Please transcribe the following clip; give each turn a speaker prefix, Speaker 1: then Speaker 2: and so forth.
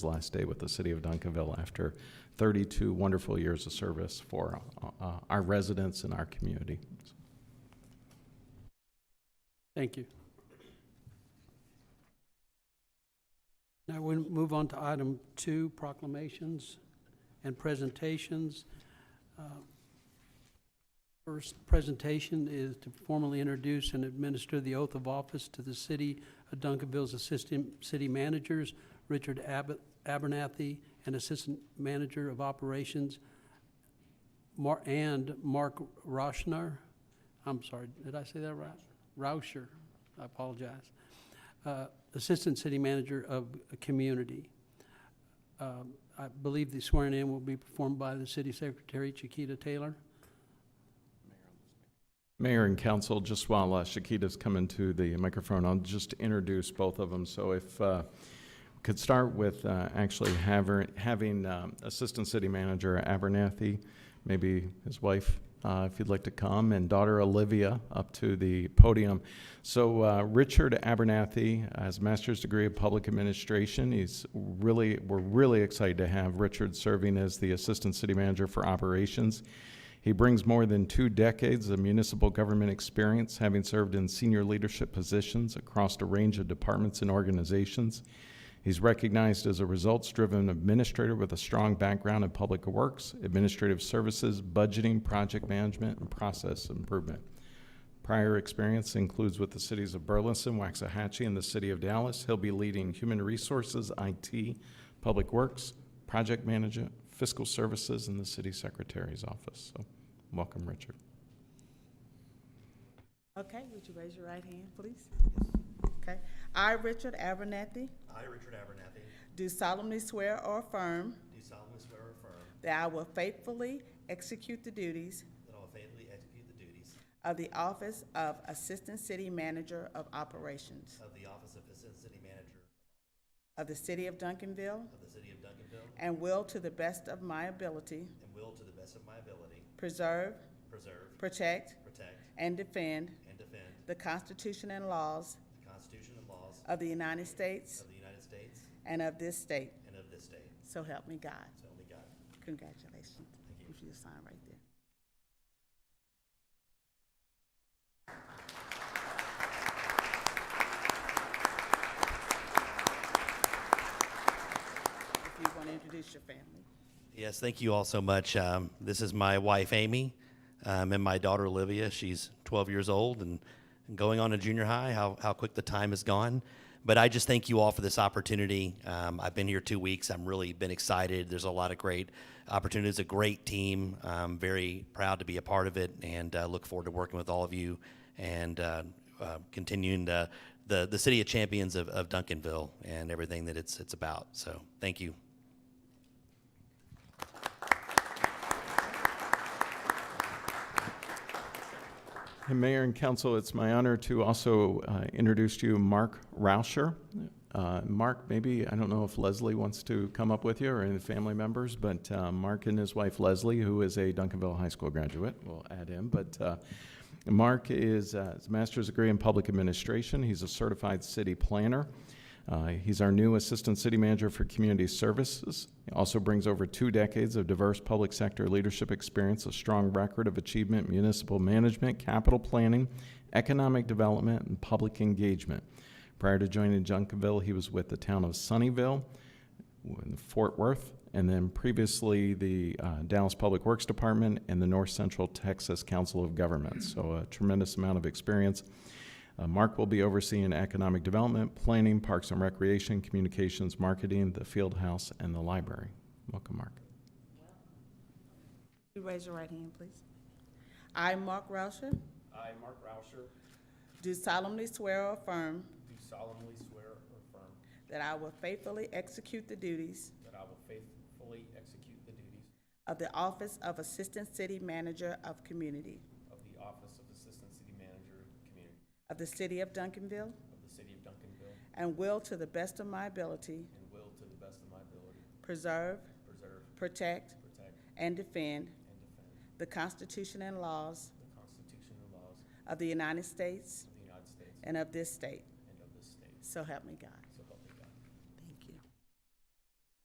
Speaker 1: last day with the city of Duncanville after 32 wonderful years of service for uh, our residents and our community.
Speaker 2: Thank you. Now we move on to item two, proclamations and presentations. Uh, First presentation is to formally introduce and administer the oath of office to the city of Duncanville's assistant city managers, Richard Abbott, Abernathy, and Assistant Manager of Operations, Mar, and Mark Roshner. I'm sorry, did I say that right? Rauscher, I apologize, uh, Assistant City Manager of a Community. Um, I believe the swearing in will be performed by the City Secretary Chiquita Taylor.
Speaker 1: Mayor and council, just while uh, Shakita's coming to the microphone, I'll just introduce both of them. So if uh, we could start with uh, actually haver- having um, Assistant City Manager Abernathy, maybe his wife, uh, if you'd like to come, and daughter Olivia up to the podium. So uh, Richard Abernathy has master's degree of public administration. He's really, we're really excited to have Richard serving as the Assistant City Manager for Operations. He brings more than two decades of municipal government experience, having served in senior leadership positions across a range of departments and organizations. He's recognized as a results driven administrator with a strong background in public works, administrative services, budgeting, project management, and process improvement. Prior experience includes with the cities of Burleson, Waxahachie, and the city of Dallas. He'll be leading human resources, IT, public works, project management, fiscal services, and the city secretary's office. So, welcome, Richard.
Speaker 3: Okay, would you raise your right hand, please? Okay. I, Richard Abernathy,
Speaker 4: I, Richard Abernathy,
Speaker 3: do solemnly swear or affirm
Speaker 4: do solemnly swear or affirm
Speaker 3: that I will faithfully execute the duties
Speaker 4: that I will faithfully execute the duties
Speaker 3: of the office of Assistant City Manager of Operations
Speaker 4: of the office of Assistant City Manager
Speaker 3: of the City of Duncanville
Speaker 4: of the City of Duncanville
Speaker 3: and will, to the best of my ability,
Speaker 4: and will, to the best of my ability,
Speaker 3: preserve,
Speaker 4: preserve,
Speaker 3: protect,
Speaker 4: protect,
Speaker 3: and defend
Speaker 4: and defend
Speaker 3: the Constitution and laws
Speaker 4: the Constitution and laws
Speaker 3: of the United States
Speaker 4: of the United States
Speaker 3: and of this state.
Speaker 4: and of this state.
Speaker 3: So help me God.
Speaker 4: So help me God.
Speaker 3: Congratulations.
Speaker 4: Thank you.
Speaker 3: If you sign right there. If you want to introduce your family.
Speaker 4: Yes, thank you all so much. Um, this is my wife, Amy, um, and my daughter, Olivia. She's 12 years old and going on to junior high. How, how quick the time has gone. But I just thank you all for this opportunity. Um, I've been here two weeks. I'm really been excited. There's a lot of great opportunities, a great team. I'm very proud to be a part of it and uh, look forward to working with all of you and uh, uh, continuing the, the, the city of champions of, of Duncanville and everything that it's, it's about. So thank you.
Speaker 1: And Mayor and Council, it's my honor to also uh, introduce to you Mark Rauscher. Uh, Mark, maybe, I don't know if Leslie wants to come up with you or any of the family members, but uh, Mark and his wife Leslie, who is a Duncanville High School graduate, we'll add him, but uh, Mark is uh, his master's degree in public administration. He's a certified city planner. Uh, he's our new assistant city manager for community services. He also brings over two decades of diverse public sector leadership experience, a strong record of achievement, in municipal management, capital planning, economic development, and public engagement. Prior to joining Junkinville, he was with the town of Sunnyvale, in Fort Worth, and then previously the uh, Dallas Public Works Department and the North Central Texas Council of Governments. So a tremendous amount of experience. Uh, Mark will be overseeing economic development, planning, parks and recreation, communications, marketing, the field house, and the library. Welcome, Mark.
Speaker 3: You raise your right hand, please. I, Mark Rauscher,
Speaker 5: I, Mark Rauscher,
Speaker 3: do solemnly swear or affirm
Speaker 5: do solemnly swear or affirm
Speaker 3: that I will faithfully execute the duties
Speaker 5: that I will faithfully execute the duties
Speaker 3: of the office of Assistant City Manager of Community
Speaker 5: of the office of Assistant City Manager, Community
Speaker 3: of the City of Duncanville
Speaker 5: of the City of Duncanville,
Speaker 3: and will, to the best of my ability,
Speaker 5: and will, to the best of my ability,
Speaker 3: preserve,
Speaker 5: preserve,
Speaker 3: protect,
Speaker 5: protect,
Speaker 3: and defend
Speaker 5: and defend
Speaker 3: the Constitution and laws
Speaker 5: the Constitution and laws
Speaker 3: of the United States
Speaker 5: of the United States
Speaker 3: and of this state.
Speaker 5: and of this state.
Speaker 3: So help me God.